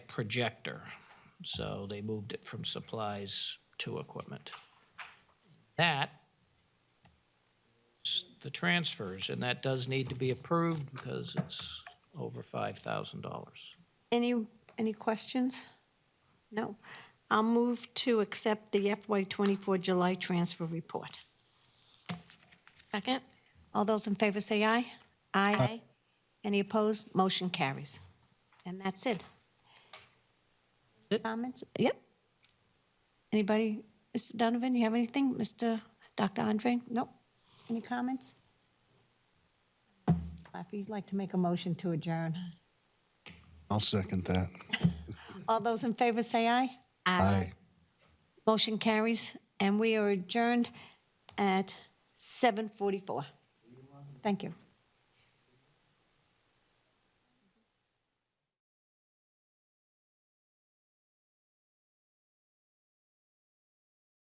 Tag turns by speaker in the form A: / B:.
A: projector. So they moved it from supplies to equipment. That is the transfers, and that does need to be approved because it's over five thousand dollars.
B: Any, any questions? No. I'll move to accept the FY24 July transfer report.
C: Second?
B: All those in favor say aye. Aye. Any opposed? Motion carries. And that's it.
A: It?
B: Comments? Yep. Anybody? Mr. Donovan, you have anything? Mr. Dr. Andre? Nope. Any comments? If you'd like to make a motion to adjourn.
D: I'll second that.
B: All those in favor say aye.
D: Aye.
B: Motion carries, and we are adjourned at 7:44. Thank you.